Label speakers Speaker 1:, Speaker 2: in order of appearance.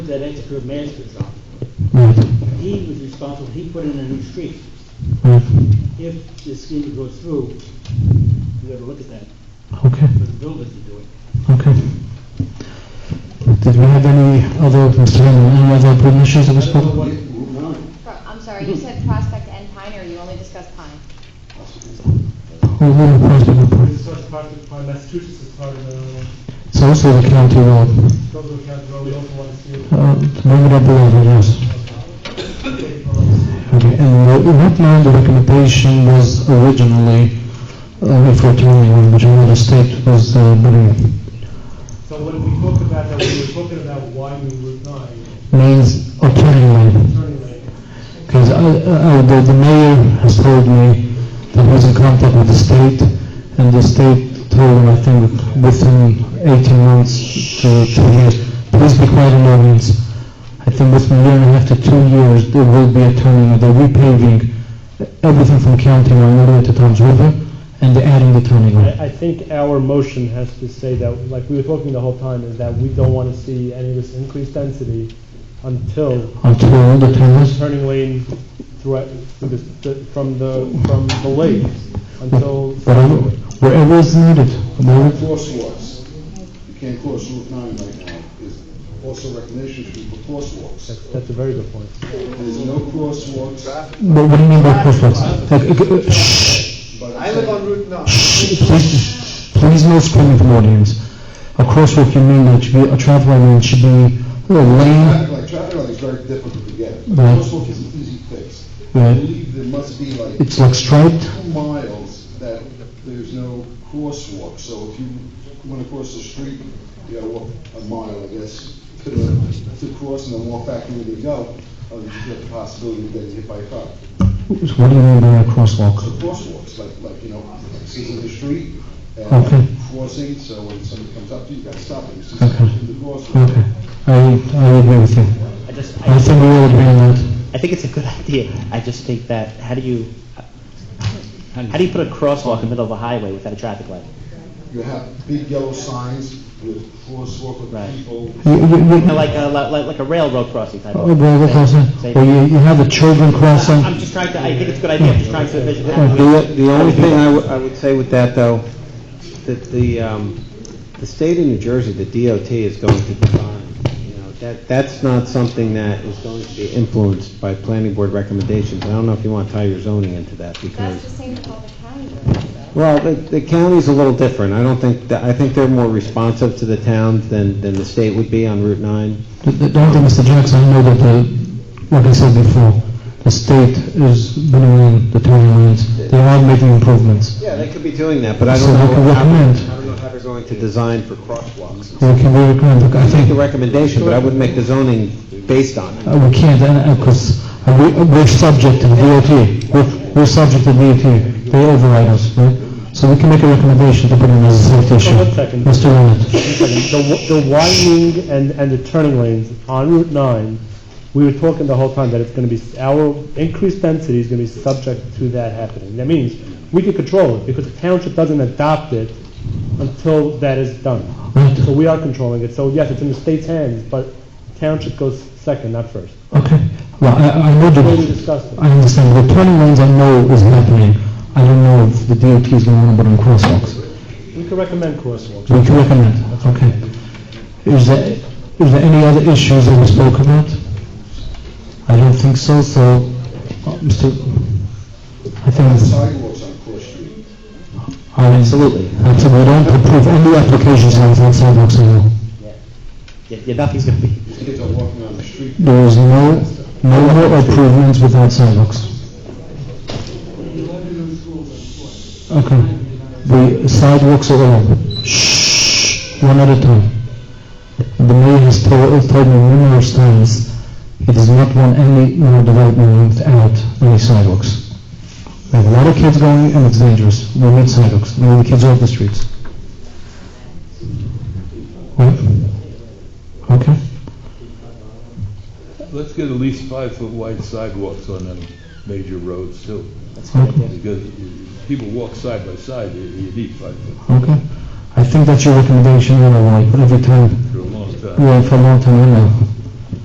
Speaker 1: that Edgefield Masters on.
Speaker 2: Right,
Speaker 1: He was responsible, he put in a new street.
Speaker 2: right,
Speaker 1: If this scheme goes through, we gotta look at that
Speaker 2: okay,
Speaker 1: for the builders to do it.
Speaker 2: okay. Did we have any other, Mr. Hinman, any other pertinent issues that we
Speaker 3: I don't know
Speaker 2: spoke?
Speaker 3: what it- move on.
Speaker 4: Pro- I'm sorry, you said Prospect and Pine, or you only discussed Pine?
Speaker 2: Who who proposed the report?
Speaker 5: This was part of my Massachusetts is part of the uh,
Speaker 2: It's also the county road.
Speaker 5: Dover County Road, we also want to see it.
Speaker 2: Uh, Bring it up a little bit, yes. Okay, and the- what line the recommendation was originally, uh, for twenty-one, which I understand was, uh, being-
Speaker 5: So when we talked about that, we were talking about why we would not
Speaker 2: means alternative lane.
Speaker 5: turning lane.
Speaker 2: Because I, I, the, the mayor has told me that he's in contact with the state, and the state told him, I think, within eighteen months to two years, please be quiet in audience. I think within a year and a half to two years, there will be a turning, they're repaving everything from County Line all the way to Tom's River, and they're adding the turning lane.
Speaker 6: I, I think our motion has to say that, like we were talking the whole time, is that we don't want to see any of this increased density until
Speaker 2: Until the turners,
Speaker 6: turning lane throughout, through this- the- from the, from the lake, until,
Speaker 2: wherever, wherever is needed, wherever-
Speaker 3: Crosswalks. You can't cross Route 9 right now. There's also recognition street for crosswalks.
Speaker 6: that's that's a very good point.
Speaker 3: There's no crosswalks.
Speaker 2: But what do you mean by crosswalks? Like, uh, uh, shh.
Speaker 3: but
Speaker 7: I live on Route 9.
Speaker 2: Please, please no screaming from audience. A crosswalk, you mean that should be a traffic lane, it should be a lane.
Speaker 3: Traffic light, traffic light is very difficult to get.
Speaker 2: Right.
Speaker 3: Crosswalk is an easy fix. I
Speaker 2: Right.
Speaker 3: believe there must be like
Speaker 2: It's like striped.
Speaker 3: two miles that there's no crosswalk. So if you want to cross the street, you gotta walk a mile, I guess, to the, to cross and then walk back and where you go. Or you have the possibility of getting hit by a car.
Speaker 2: So What do you mean by a crosswalk?
Speaker 3: crosswalks, like, like, you know, scissor the street
Speaker 2: Okay.
Speaker 3: and crossing, so when somebody comes up to you, you gotta stop them, scissor
Speaker 2: Okay.
Speaker 3: in the crosswalk.
Speaker 2: Okay, I, I agree with you.
Speaker 8: I just,
Speaker 2: I
Speaker 8: I,
Speaker 2: think we all agree on that.
Speaker 8: I think it's a good idea. I just think that, how do you, how do you put a crosswalk in the middle of a highway without a traffic light?
Speaker 3: You have big yellow signs with crosswalk with
Speaker 8: Right.
Speaker 3: people.
Speaker 2: You, you,
Speaker 8: You know,
Speaker 2: you,
Speaker 8: like a, like, like a railroad crossing type
Speaker 2: oh,
Speaker 8: of
Speaker 2: well,
Speaker 8: thing.
Speaker 2: what else?
Speaker 8: Say-
Speaker 2: Or you, you have the children crossing.
Speaker 8: I'm just trying to, I think it's a good idea, I'm just trying to envision
Speaker 2: Yeah.
Speaker 8: how we,
Speaker 9: The, the only thing I would, I would say with that, though, that the, um, the state of New Jersey, the DOT is going to define, you know, that, that's not something that is going to be influenced by planning board recommendations. I don't know if you want to tie your zoning into that,
Speaker 4: That's the
Speaker 9: because,
Speaker 4: same with all the county roads, though.
Speaker 9: well, the, the county's a little different. I don't think, that- I think they're more responsive to the towns than, than the state would be on Route 9.
Speaker 2: The- the- Don't think, Mr. Jackson, I know that the, like I said before, the state is bringing the turning lanes. They are making improvements.
Speaker 9: Yeah, they could be doing that, but I
Speaker 2: So
Speaker 9: don't know.
Speaker 2: they could
Speaker 9: how-
Speaker 2: recommend.
Speaker 9: I don't know how they're going to design for crosswalks.
Speaker 2: We can be recommended, I
Speaker 9: I
Speaker 2: think.
Speaker 9: make a recommendation, but I wouldn't make the zoning based on it.
Speaker 2: Uh, We can't, because we're subject to DOT. We're- We're subject to DOT. They override us, right? So we can make a recommendation to put in as a safety issue.
Speaker 6: one second.
Speaker 2: Mr. Leonard.
Speaker 6: The wi- the widening and, and the turning lanes on Route 9, we were talking the whole time that it's going to be, our increased density is going to be subject to that happening. That means we can control it because the township doesn't adopt it until that is done. So we are controlling it. So yes, it's in the state's hands, but township goes second, not first.
Speaker 2: Okay. Well, I I know
Speaker 6: The way we
Speaker 2: that,
Speaker 6: discussed it.
Speaker 2: I understand. The turning lanes I know is happening. I don't know if the DOT is going to want to put in crosswalks.
Speaker 6: We can recommend crosswalks.
Speaker 2: We can recommend, okay. Is there, is there any other issues that we spoke about? I don't think so, so, uh, Mr., I think it's...
Speaker 3: Sidewalks on Cross Street.
Speaker 2: Absolutely. Absolutely. We don't approve any applications on front sidewalks at all.
Speaker 8: yeah, yeah, nothing's gonna be,
Speaker 3: These kids are walking on the street.
Speaker 2: There is no, no more improvements without sidewalks. Okay. The sidewalks are all, shh, one at a time. The mayor has told, told me numerous times, he does not want any more development without any sidewalks. We have a lot of kids going and it's dangerous. We need sidewalks. We need the kids off the streets. What? Okay.
Speaker 10: Let's get at least five-foot wide sidewalks on them major roads too, because if people walk side by side, you- you need five foot
Speaker 2: Okay. I think that's your recommendation anyway, every time,
Speaker 10: for a long time.
Speaker 2: yeah, for a long time, I know.